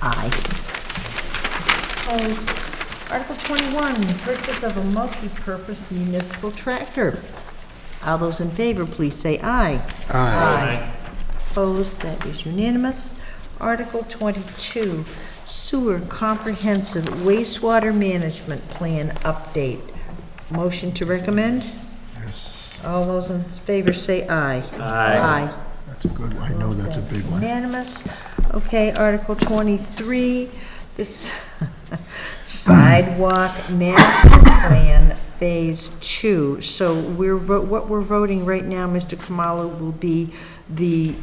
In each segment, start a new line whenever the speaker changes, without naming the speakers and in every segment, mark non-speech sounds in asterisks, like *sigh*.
Aye.
Opposed. Article 21, purchase of a multi-purpose municipal tractor.
All those in favor, please say aye. Aye.
Opposed, that is unanimous. Article 22, sewer comprehensive wastewater management plan update. Motion to recommend? All those in favor say aye. Aye.
That's a good one. I know that's a big one.
Unanimous. Okay, Article 23, this sidewalk master plan, Phase 2. So we're, vo- what we're voting right now, Mr. Kamalo, will be the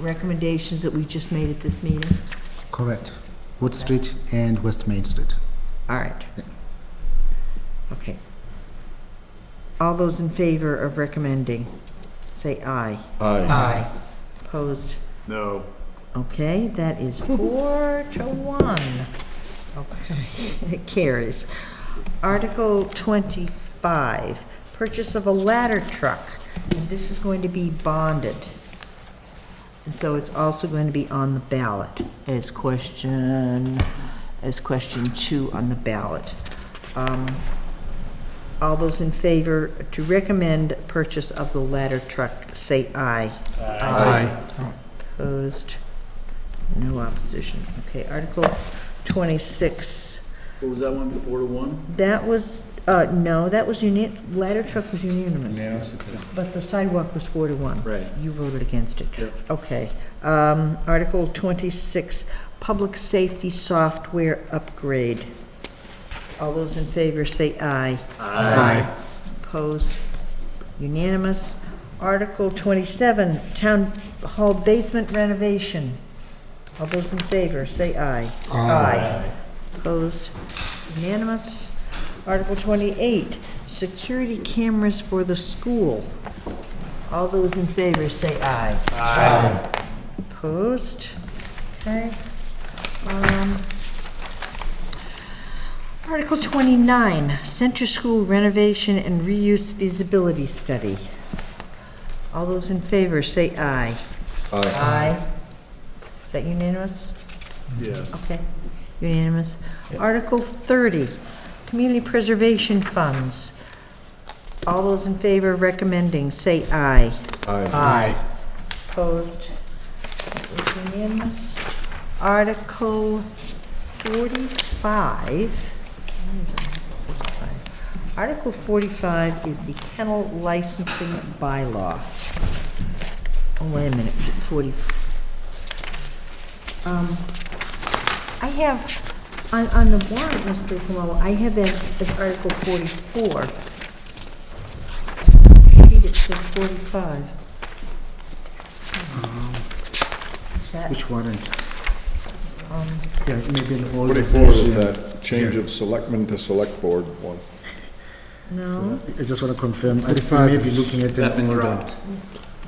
recommendations that we just made at this meeting?
Correct. Wood Street and West Main Street.
All right. Okay. All those in favor of recommending, say aye. Aye. Opposed?
No.
Okay, that is four to one. Okay, *laughs* it carries. Article 25, purchase of a ladder truck. And This is going to be bonded. And so it's also going to be on the ballot as question, as question two on the ballot. Um, All those in favor to recommend purchase of the ladder truck, say aye. Aye. Opposed? No opposition. Okay, Article 26.
What was that one, four to one?
That was, uh, no, that was uni, ladder truck was unanimous. But the sidewalk was four to one.
Right.
You voted against it.
Yep.
Okay. Um, Article 26, public safety software upgrade. All those in favor say aye.
Aye.
Opposed? Unanimous. Article 27, Town Hall Basement Renovation. All those in favor, say aye. Aye. Opposed? Unanimous. Article 28, Security Cameras for the School. All those in favor, say aye. Aye. Opposed? Okay. Um, Article 29, Center School Renovation and Reuse Feasibility Study. All those in favor, say aye. Aye. Is that unanimous?
Yes.
Okay, unanimous. Article 30, Community Preservation Funds. All those in favor of recommending, say aye.
Aye.
Opposed? That is unanimous. Article 45. Article 45 is the kennel licensing bylaw. Oh, wait a minute, 40. Um, I have, on, on the warrant, Mr. Kamala, I have that as Article 44. Sheet it says 45. Is that-
Which warrant?
um,
Yeah, maybe an old.
Forty-four is
version.
that change of selectmen to select board one.
No,
I just want to confirm, I may be looking at
That
an
been
older.
dropped?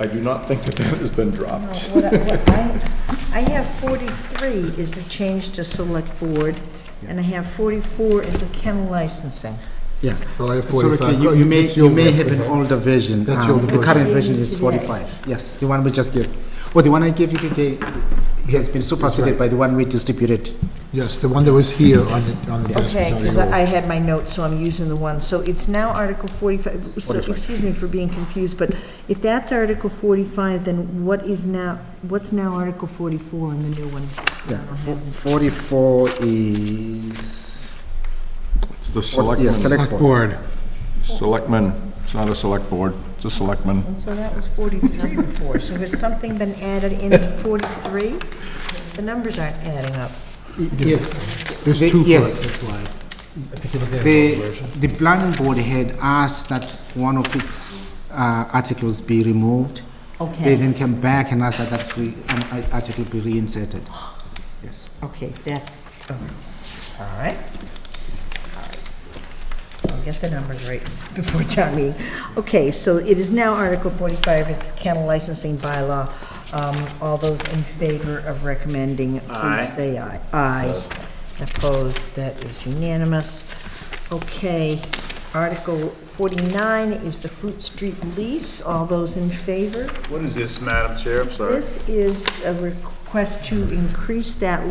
I do not think that that has been
no,
dropped.
what I, what I- I have forty-three is the change to select board, and I have forty-four is the kennel licensing.
Yeah.
Well, I have
Sorry,
45.
you- you may,
That's
you
your
may
version,
have an
right?
older version.
That's
Um,
your
The
version.
current version is
Today.
45, yes, the one we just gave. Well, the one I gave you today has been superseded by the one we distributed.
Yes, the one that was here on the, on the desk.
Okay,
Tony
because
Hall.
I I had my notes, so I'm using the one, so it's now Article forty-five, so,
45.
excuse me for being confused, but if that's Article forty-five, then what is now, what's now Article forty-four in the new one?
Yeah, fo- 44 is,
It's the
yeah,
selectmen.
select board.
Board,
Selectmen, it's not a select board, it's a selectman.
And so that was forty-three before, so has something been added in forty-three? The numbers aren't adding up.
Yes.
there's
They-
two for it,
yes.
that's why. I think you look at the
The,
old version.
the planning board had asked that one of its uh, articles be removed. They
Okay,
then came back and asked that that re- an i- article be reinserted. Yes.
okay, that's, all right. All right. I'll get the numbers right *laughs* before town meeting. Okay, so it is now Article 45, it's kennel licensing bylaw. Um, All those in favor of recommending,
Aye.
please say aye. Aye. Opposed, that is unanimous. Okay, Article 49 is the Fruit Street lease. All those in favor?
What is this, Madam Chair? I'm sorry.
This is a request to increase that